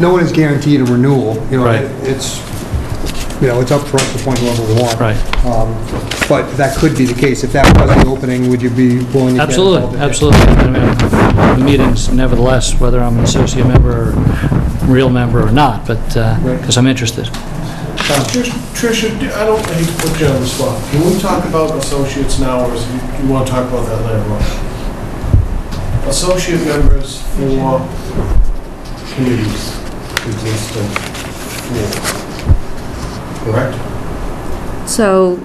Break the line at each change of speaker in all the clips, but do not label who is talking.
no one is guaranteed a renewal, you know,
Right.
it- it's, you know, it's up for us to point whoever we want.
Right.
Um, But that could be the case, if that was the opening, would you be willing to get involved?
Absolutely, absolutely. I mean, the Meetings nevertheless, whether I'm an associate member or real member or not, but,
Right.
because I'm interested.
Trish- Tricia, do- I don't I hate to put you on the spot. Can we talk about associates now, or is- you- you want to talk about that later on? Associate members for committees exist in four, correct?
So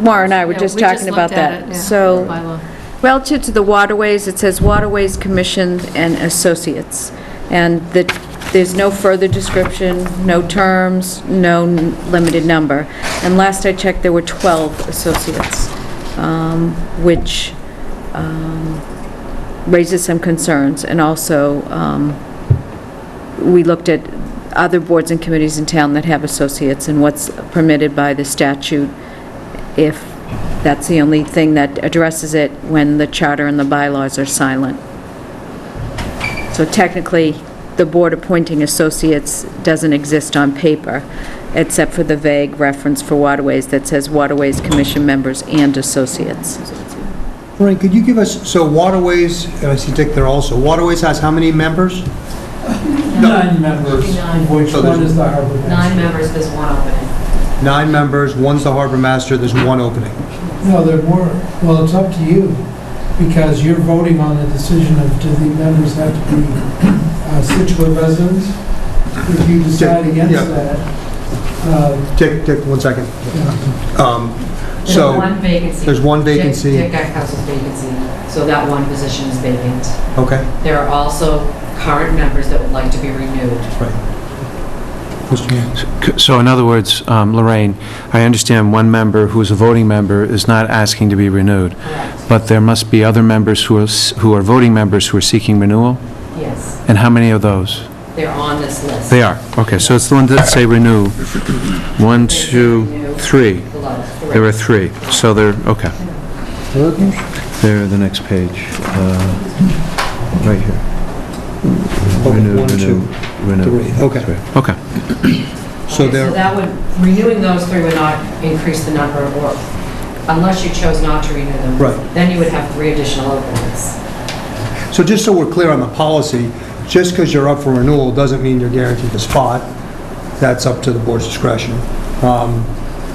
Maura and I were
Yeah,
just
we just
talking about
looked at
that.
it, yeah.
So
bylaw.
relative to the waterways, it says Waterways Commission and Associates. And the, there's no further description, no terms, no n- limited number. And last I checked, there were 12 associates, um, which um, raises some concerns. And also, um, we looked at other boards and committees in town that have associates and what's permitted by the statute if that's the only thing that addresses it when the charter and the bylaws are silent. So technically, the board appointing associates doesn't exist on paper, except for the vague reference for waterways that says waterways commission members and associates.
Frank, could you give us, so Waterways, and I see Dick there also, Waterways has how many members?
Nine members,
Nine.
of which
So there's-
one is the harbor master.
Nine members, there's one opening.
Nine members, one's the harbor master, there's one opening.
No, there weren't. Well, it's up to you, because you're voting on the decision of, do the members have to be uh, Situate residents? If you decide against
Yeah.
that, uh,
Dick, Dick, one second. Um,
There's
So,
one vacancy.
there's one
Dick-
vacancy,
Dick Guckehouse's vacancy, so that one position is vacant.
okay.
There are also current members that would like to be renewed.
Mr. Mayor.
So in other words, um, Lorraine, I understand one member who is a voting member is not asking to be renewed,
Correct.
but there must be other members who are, s- who are voting members who are seeking renewal?
Yes,
And how many of those?
they're on this list.
They are. Okay, so it's the ones that say renew. One, two,
Renew.
three.
Below, correct.
There are three. So they're, okay. They're the next page, uh, right here.
Oh,
Renew,
one,
renew,
two,
renew.
three. Okay,
Three. Okay.
so
Okay, So
there,
that would, renewing those three would not increase the number of work, unless you chose not to renew them.
Right.
Then you would have three additional openings.
so just so we're clear on the policy, just because you're up for renewal doesn't mean you're guaranteed a spot. That's up to the board's discretion. Um,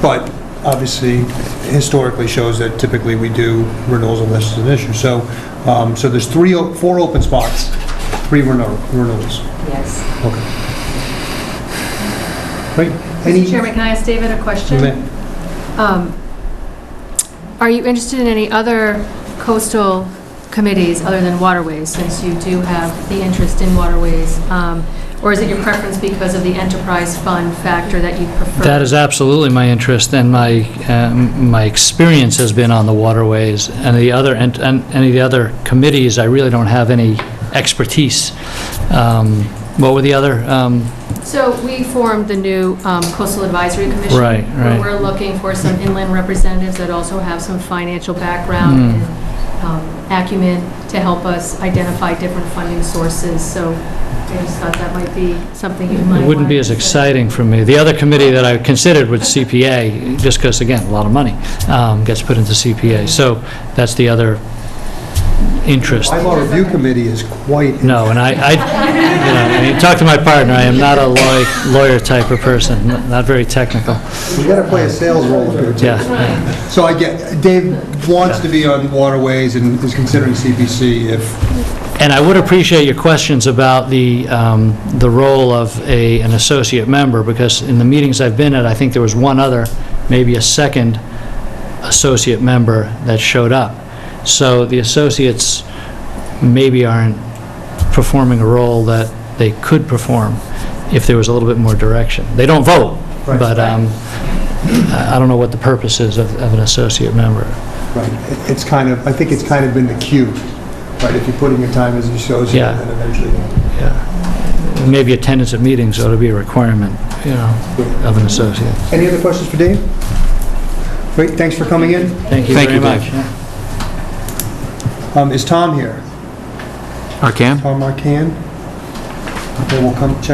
But obviously, historically shows that typically we do renewals unless it's an issue. So, um, so there's three, o- four open spots, three renew- renewals.
Yes.
Okay. Great. Any-
Mr. Chairman, can I ask David a question?
Ma-
Um, Are you interested in any other coastal committees other than waterways, since you do have the interest in waterways? Um, Or is it your preference because of the enterprise fund factor that you prefer?
That is absolutely my interest, and my, um, my experience has been on the waterways and the other, and and any of the other committees, I really don't have any expertise. Um, What were the other? um,
So we formed the new um, Coastal Advisory Commission.
Right, right.
Where we're looking for some inland representatives that also have some financial background
Hmm.
and um, acumen to help us identify different funding sources. So I just thought that might be something you might
It wouldn't be
want
as
to-
exciting for me. The other committee that I considered was CPA, just because, again, a lot of money um, gets put into CPA. So that's the other interest.
Bylaw Review Committee is quite
No, and I, I- you know, I mean, talk to my partner, I am not a law- lawyer type of person, n- not very technical.
We gotta play a sales role here, too.
Yeah,
So I get, Dave wants to be on waterways and is considering CPC if,
and I would appreciate your questions about the, um, the role of a, an associate member, because in the meetings I've been at, I think there was one other, maybe a second associate member that showed up. So the associates maybe aren't performing a role that they could perform if there was a little bit more direction. They don't vote,
Right.
but um, I I don't know what the purpose is of of an associate member.
right, it- it's kind of, I think it's kind of been the cue, right? If you put in your time as you show,
Yeah.
then eventually.
Yeah. Maybe attendance at meetings ought to be a requirement, you know, of an associate.
Any other questions for Dave? Great, thanks for coming in.
Thank you
Thank
very
you,
much.
Dave.
Um, Is Tom here?
Arcan?
Tom Marcan? Okay, we'll come check